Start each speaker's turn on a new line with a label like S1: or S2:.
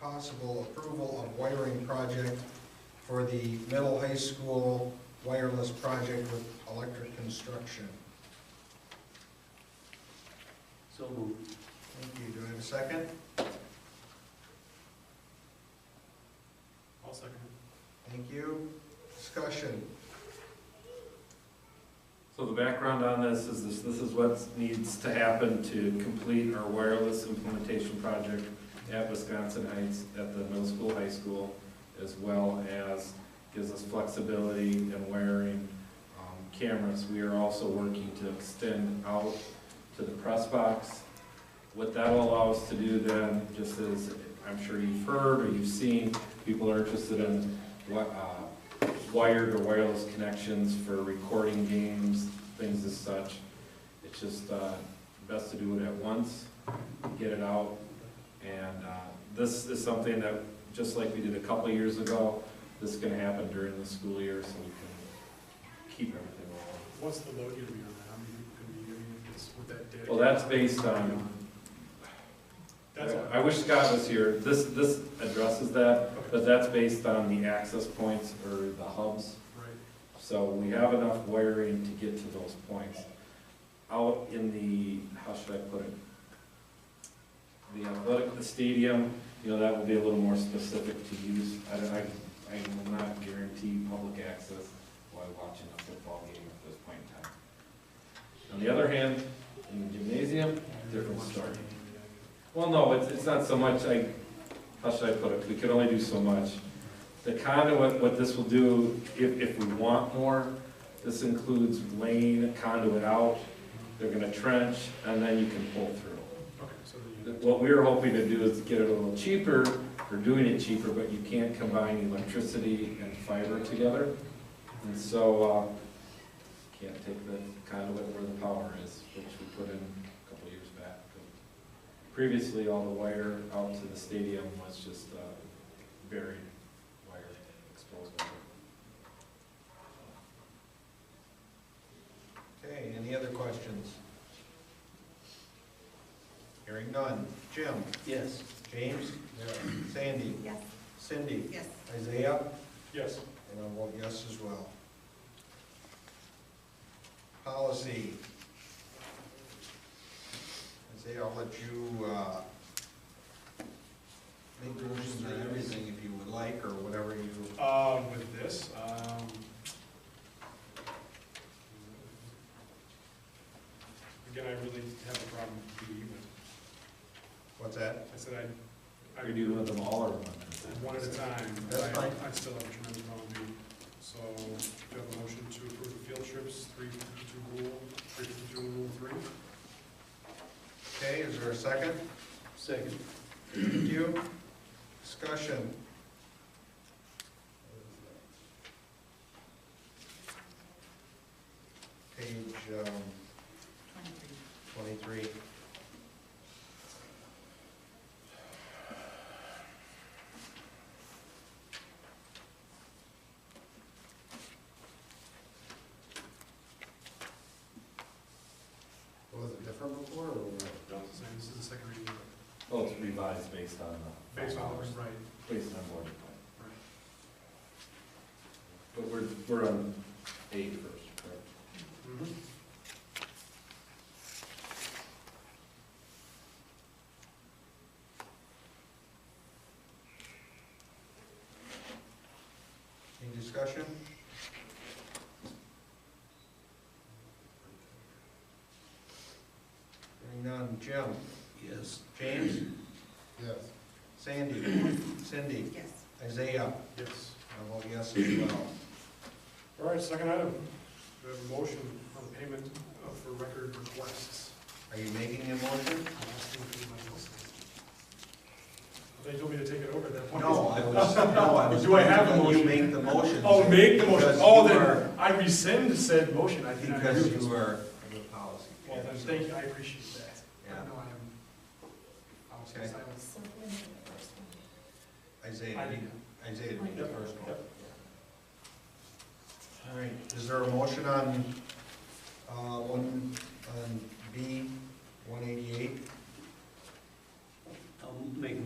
S1: possible approval of wiring project for the middle high school wireless project with electric construction.
S2: So moved.
S1: Thank you. Do I have a second?
S3: I'll second.
S1: Thank you. Discussion.
S4: So the background on this is this, this is what needs to happen to complete our wireless implementation project at Wisconsin Heights, at the middle school, high school, as well as gives us flexibility in wiring um, cameras. We are also working to extend out to the press box. What that will allow us to do then, just as I'm sure you've heard or you've seen, people are interested in what, uh, wired or wireless connections for recording games, things as such. It's just uh, best to do it at once, get it out. And uh, this is something that, just like we did a couple of years ago, this is gonna happen during the school year, so we can keep everything rolling.
S3: What's the load gonna be on that? How many people can be doing it? Is- Would that dedicate?
S4: Well, that's based on,
S3: That's all.
S4: I wish Scott was here, this, this addresses that,
S3: Okay,
S4: but that's based on the access points or the hubs.
S3: Right.
S4: So we have enough wiring to get to those points. Out in the, how should I put it? The athletic, the stadium, you know, that will be a little more specific to use. I, I, I will not guarantee public access while watching a football game at this point in time. On the other hand, in the gymnasium, different story. well, no, it's, it's not so much, I, how should I put it, we can only do so much. The conduit, what this will do, if, if we want more, this includes laying conduit out, they're gonna trench, and then you can pull through.
S3: Okay, so then you,
S4: What we were hoping to do is get it a little cheaper, we're doing it cheaper, but you can't combine electricity and fiber together. And so, uh, can't take the conduit where the power is, which we put in a couple years back. Previously, all the wire out to the stadium was just uh, buried wire, exposed wire.
S1: Okay, any other questions? Hearing none. Jim?
S2: Yes.
S1: James? Sandy?
S5: Yes.
S1: Cindy?
S5: Yes.
S1: Isaiah?
S3: yes,
S1: And I'll vote yes as well. Policy. Isaiah, I'll let you, uh, make motions on everything if you would like, or whatever you,
S3: um, with this, um. Again, I really have a problem with the evening.
S1: what's that?
S3: I said I, I
S4: Are you doing with them all or one?
S3: one at a time, but
S1: That's
S3: I,
S1: fine.
S3: I still have a tremendous amount to do. So, do you have a motion to approve the field trips, three fifty-two rule, three fifty-two rule three?
S1: Okay, is there a second?
S2: Second.
S1: Thank you. Discussion. Page, um,
S5: Twenty-three.
S1: twenty-three. Was it different before, or what?
S3: No. Same, this is the second reading, of
S4: Well, it's revised based on
S3: it.
S4: the.
S3: based on,
S4: Based
S3: right,
S4: on board plan.
S3: right.
S4: But we're, we're on eight first, correct?
S3: Mhm.
S1: Any discussion? Hearing none, Jim?
S2: Yes.
S1: James? Yes. Sandy? Cindy?
S5: Yes.
S1: Isaiah?
S3: Yes.
S1: I vote yes as well.
S3: All right, second item, we have a motion on payment uh, for record requests.
S1: Are you making a motion?
S3: I'm asking if anybody else has- They told me to take it over at that point.
S1: I was, no, I
S3: Do I have a
S1: letting You
S3: motion?
S1: make the motion.
S3: Oh, make the motion,
S1: Because
S3: oh,
S1: you
S3: then,
S1: are-
S3: I rescind said motion, I think I agree
S1: Because
S3: with this.
S1: you are the policy.
S3: Well, then, thank you, I appreciate that.
S1: Yeah.
S3: I know I am, I was
S1: Okay.
S3: silent.
S5: So when is the first one?
S3: I
S1: Isaiah,
S3: didn't-
S1: you- Isaiah, you made the
S3: Yep,
S1: first one.
S3: yep.
S1: All right, is there a motion on, uh, one, on B one eighty-eight?
S2: I'll make